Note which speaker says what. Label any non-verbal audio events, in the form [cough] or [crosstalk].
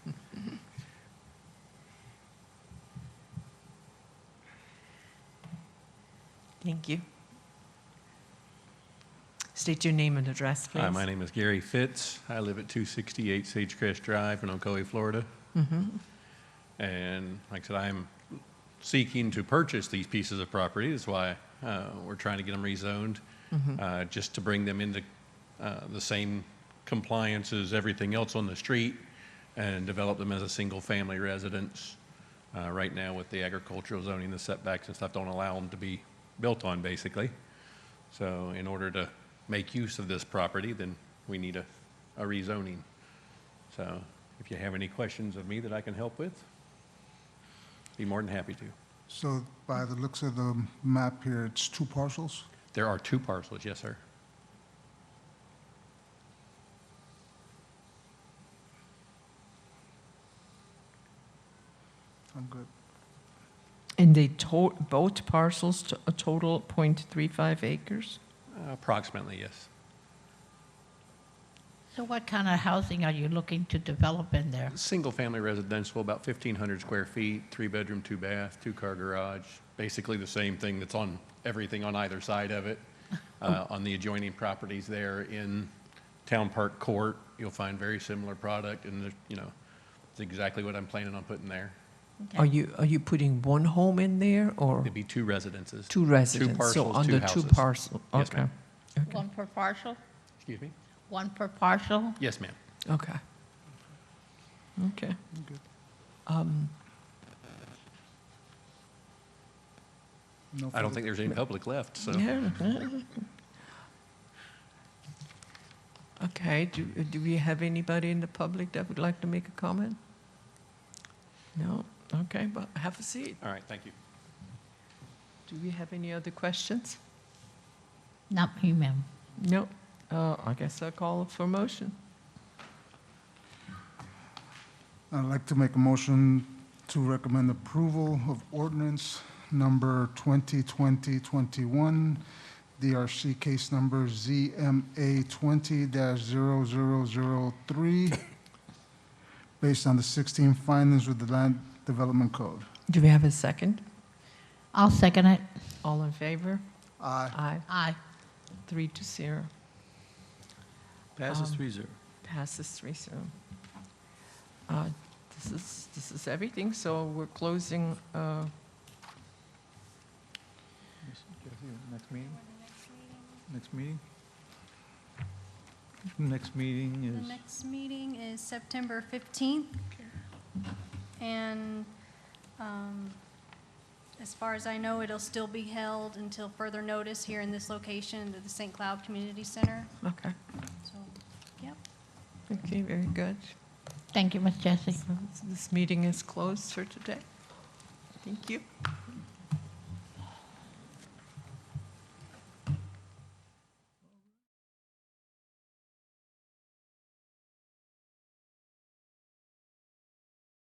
Speaker 1: Thank you. State your name and address, please.
Speaker 2: Hi, my name is Gary Fitz. I live at 268 Sage Crest Drive in Ocoee, Florida. And like I said, I'm seeking to purchase these pieces of property. That's why uh, we're trying to get them rezoned, uh, just to bring them into uh, the same compliance as everything else on the street and develop them as a single-family residence. Uh, Right now with the agricultural zoning, the setbacks and stuff don't allow them to be built on, basically. So in order to make use of this property, then we need a, a rezoning. So if you have any questions of me that I can help with, be more than happy to.
Speaker 3: So by the looks of the map here, it's two parcels?
Speaker 2: There are two parcels, yes, sir.
Speaker 3: I'm good.
Speaker 1: And they to, both parcels to a total .35 acres?
Speaker 2: Approximately, yes.
Speaker 4: So what kind of housing are you looking to develop in there?
Speaker 2: Single-family residential, about 1,500 square feet, three-bedroom, two-bath, two-car garage, basically the same thing that's on everything on either side
Speaker 1: [laughs]
Speaker 2: of it. Uh, On the adjoining properties there in Town Park Court, you'll find very similar product, and, there's, you know, it's exactly what I'm planning on putting there.
Speaker 1: Are you, are you putting one home in there or
Speaker 2: It'd be two residences.
Speaker 1: two residents?
Speaker 2: parcels,
Speaker 1: So under two
Speaker 2: houses.
Speaker 1: parcel,
Speaker 2: Yes,
Speaker 1: okay.
Speaker 2: ma'am.
Speaker 4: One per parcel?
Speaker 2: Excuse me?
Speaker 4: One per parcel?
Speaker 2: Yes, ma'am.
Speaker 1: Okay. Okay.
Speaker 3: good.
Speaker 1: Um,
Speaker 3: No
Speaker 2: I don't
Speaker 3: further-
Speaker 2: think there's any public left,
Speaker 1: [laughs]
Speaker 2: so.
Speaker 1: yeah. Okay, do, do we have anybody in the public that would like to make a comment? No? Okay, but have a seat.
Speaker 2: All right, thank you.
Speaker 1: Do we have any other questions?
Speaker 4: Not me, ma'am.
Speaker 1: No. Uh, I guess I'll call for motion.
Speaker 3: I'd like to make a motion to recommend approval of ordinance number 2020-21, DRC case number ZMA
Speaker 2: [laughs]
Speaker 3: 20-0003, based on the 16 findings with the Land Development Code.
Speaker 1: Do we have a second?
Speaker 4: I'll second it.
Speaker 1: All in favor?
Speaker 3: Aye.
Speaker 1: Aye.
Speaker 4: Aye.
Speaker 1: Three to zero.
Speaker 5: Passes
Speaker 1: Um,
Speaker 5: three zero.
Speaker 1: Passes three zero. Uh, This is, this is everything, so we're closing, uh,
Speaker 5: Next meeting? Next meeting? Next
Speaker 6: The
Speaker 5: meeting
Speaker 6: next meeting is September 15th. And um, as far as I know, it'll still be held until further notice here in this location at the St. Cloud Community Center.
Speaker 1: okay,
Speaker 6: So, yep.
Speaker 1: okay, very good.
Speaker 4: Thank you, Ms. Jessie.
Speaker 1: So This meeting is closed for today. Thank you.